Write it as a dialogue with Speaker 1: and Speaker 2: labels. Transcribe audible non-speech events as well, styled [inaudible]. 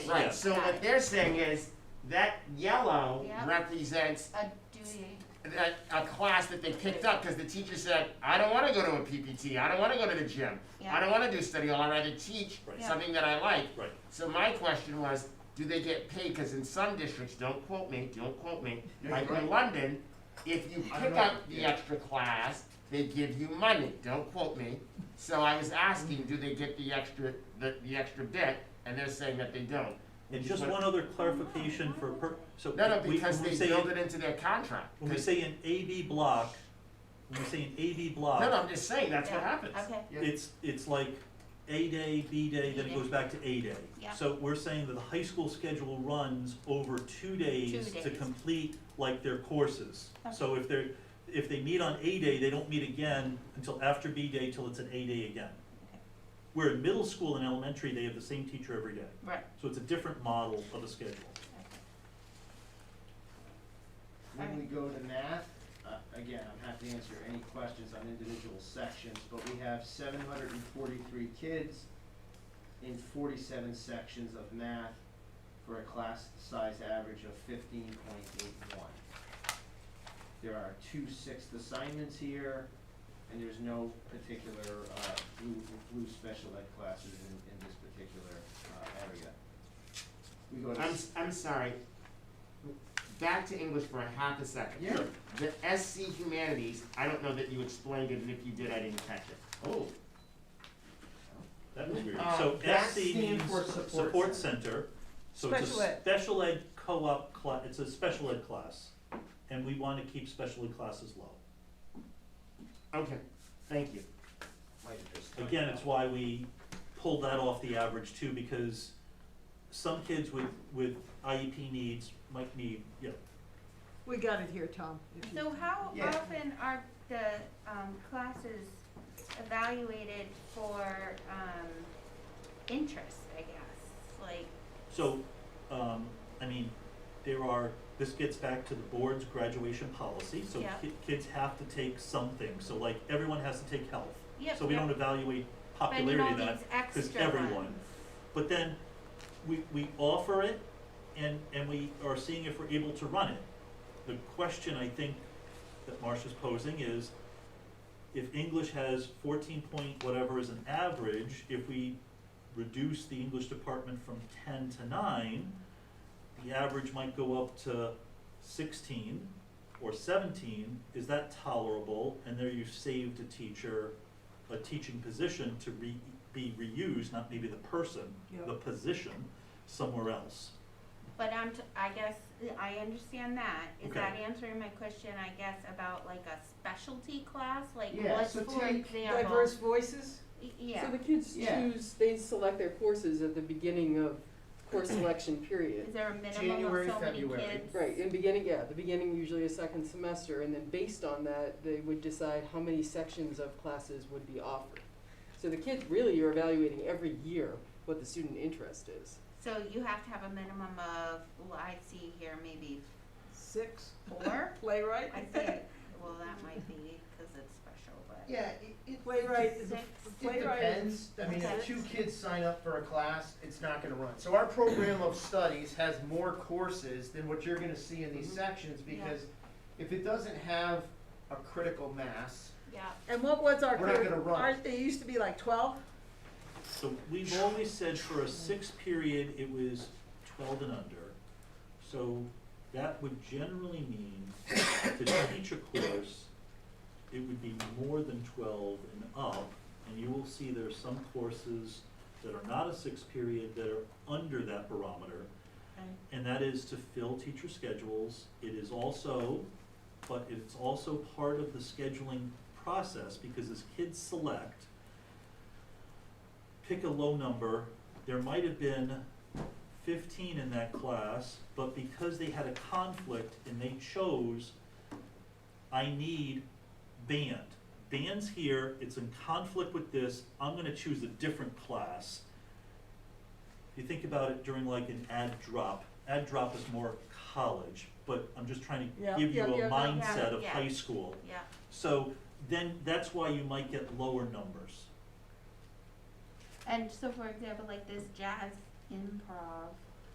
Speaker 1: Right,
Speaker 2: Yeah.
Speaker 1: so
Speaker 3: Got
Speaker 1: what
Speaker 3: it.
Speaker 1: they're saying is that yellow
Speaker 3: Yep.
Speaker 1: represents
Speaker 3: a duty.
Speaker 1: a, a class that they picked up because the teacher said, I don't want to go to a PPT, I don't want to go to the gym, I
Speaker 3: Yeah.
Speaker 1: don't want to do study hall, I'd rather teach
Speaker 2: Right.
Speaker 3: Yeah.
Speaker 1: something that I like.
Speaker 2: Right.
Speaker 1: So my question was, do they get paid? Because in some districts, don't quote me, don't quote me,
Speaker 4: Yeah,
Speaker 1: like
Speaker 4: you're
Speaker 1: in
Speaker 4: right.
Speaker 1: London, if you
Speaker 4: I
Speaker 1: pick
Speaker 4: know,
Speaker 1: up the
Speaker 4: yeah.
Speaker 1: extra class, they give you money, don't quote me. So I was asking, do they get the extra, the, the extra bit, and they're saying that they don't.
Speaker 2: And just one other clarification for, per- so.
Speaker 1: No, no,
Speaker 2: we-
Speaker 1: because
Speaker 2: when we
Speaker 1: they
Speaker 2: say
Speaker 1: build it
Speaker 2: an-
Speaker 1: into their contract.
Speaker 2: When we
Speaker 1: 'Cause-
Speaker 2: say an AB block, when we say an AB block.
Speaker 1: No, no, I'm just saying, that's what
Speaker 3: Yeah.
Speaker 1: happens.
Speaker 3: Okay,
Speaker 2: It's, it's like A day, B day, then it goes back to A day.
Speaker 3: Yeah.
Speaker 2: So we're saying that the high school schedule runs over two days
Speaker 3: Two
Speaker 2: to
Speaker 3: days.
Speaker 2: complete like their courses. So if they're, if they meet on A day, they don't meet again until after B day, till it's an A day again.
Speaker 3: Okay.
Speaker 2: Where in middle school and elementary, they have the same teacher every day.
Speaker 3: right.
Speaker 2: So it's a different model of a schedule.
Speaker 4: When we go to math, uh, again, I'm happy to answer any questions on individual sections, but we have seven hundred and forty-three kids in forty-seven sections of math for a class size average of fifteen point eight one. There are two sixth assignments here, and there's no particular, uh, blue, blue special ed classes in, in this particular, uh, area. We go to.
Speaker 1: I'm,
Speaker 4: s-
Speaker 1: I'm sorry. Back to English for a half a second.
Speaker 4: Yeah.
Speaker 1: The SC Humanities, I don't know that you explained it, and if you did, I didn't catch it.
Speaker 4: Oh,
Speaker 2: That was weird.
Speaker 1: Uh,
Speaker 2: So
Speaker 1: that
Speaker 2: SC
Speaker 4: stands
Speaker 2: means
Speaker 4: for support
Speaker 2: support
Speaker 4: center.
Speaker 2: center. So it's
Speaker 5: Special
Speaker 2: a
Speaker 5: ed.
Speaker 2: special ed co-op class, it's a special ed class. And we want to keep special ed classes low.
Speaker 1: Okay, thank you.
Speaker 4: might have just.
Speaker 2: Again, it's why we pulled that off the average too, because some kids with, with IEP needs might need, you know,
Speaker 5: We got it here, Tom. if you-
Speaker 3: So how
Speaker 4: Yeah.
Speaker 3: often are the, um, classes evaluated for, um, interest, I guess? Like,
Speaker 2: So, um, I mean, there are, this gets back to the board's graduation policy, so
Speaker 3: Yeah.
Speaker 2: ki- kids have to take something, so like, everyone has to take health.
Speaker 3: Yep,
Speaker 2: So we
Speaker 3: yep.
Speaker 2: don't evaluate
Speaker 3: but in
Speaker 2: popularity
Speaker 3: all
Speaker 2: of that,
Speaker 3: these extra
Speaker 2: everyone.
Speaker 3: ones.
Speaker 2: but then we, we offer it and, and we are seeing if we're able to run it. The question I think that Marcia's posing is, if English has fourteen point whatever as an average, if we reduce the English department from ten to nine, the average might go up to sixteen or seventeen, is that tolerable? And there you've saved a teacher, a teaching position to re, be reused, not maybe the person,
Speaker 5: Yep.
Speaker 2: the position, somewhere else.
Speaker 3: But I'm, t- I guess, I understand that. Is
Speaker 2: Okay.
Speaker 3: that answering my question, I guess, about like a specialty class? Like
Speaker 4: Yeah,
Speaker 3: what's,
Speaker 4: so
Speaker 3: for
Speaker 4: take
Speaker 3: example?
Speaker 6: Diverse voices?
Speaker 3: Y- Yeah.
Speaker 6: So the kids
Speaker 4: Yeah.
Speaker 6: choose, they select their courses at the beginning of course selection period.
Speaker 3: Is there a minimum
Speaker 4: January,
Speaker 3: of so many kids?
Speaker 4: February.
Speaker 6: Right, in beginning, yeah, the beginning usually a second semester, and then based on that, they would decide how many sections of classes would be offered. So the kids, really, you're evaluating every year what the student interest is.
Speaker 3: So you have to have a minimum of, well, I see here maybe
Speaker 5: Six,
Speaker 3: four,
Speaker 5: playwright.
Speaker 3: I see, well, that might be, cause it's special, but.
Speaker 4: Yeah, it, it,
Speaker 5: [laughs] Playwright is,
Speaker 3: Six.
Speaker 4: it
Speaker 5: playwright
Speaker 4: depends,
Speaker 5: is
Speaker 4: I mean, if
Speaker 3: Okay.
Speaker 4: two kids sign up for a class, it's not gonna run. So our program of studies has more courses than what you're gonna see in these sections,
Speaker 3: Yeah.
Speaker 4: because if it doesn't have a critical mass,
Speaker 3: Yeah,
Speaker 5: And what was our,
Speaker 4: We're not
Speaker 5: cur-
Speaker 4: gonna run.
Speaker 5: our- it used to be like twelve?
Speaker 2: So we've always said for a six period, it was twelve and under. So that would generally mean to teach a course, it would be more than twelve and up. And you will see there are some courses that are not a six period that are under that barometer. And that is to fill teacher schedules. It is also, but it's also part of the scheduling process because as kids select, pick a low number, there might have been fifteen in that class, but because they had a conflict and they chose, I need band. Band's here, it's in conflict with this, I'm gonna choose a different class if you think about it during like an ad drop, ad drop is more college, but I'm just trying
Speaker 5: Yeah,
Speaker 2: to give you
Speaker 5: yeah, yeah,
Speaker 2: a
Speaker 5: yeah,
Speaker 2: mindset of
Speaker 3: yeah.
Speaker 2: high school.
Speaker 3: yeah,
Speaker 2: So then that's why you might get lower numbers.
Speaker 3: and so for example, like this jazz improv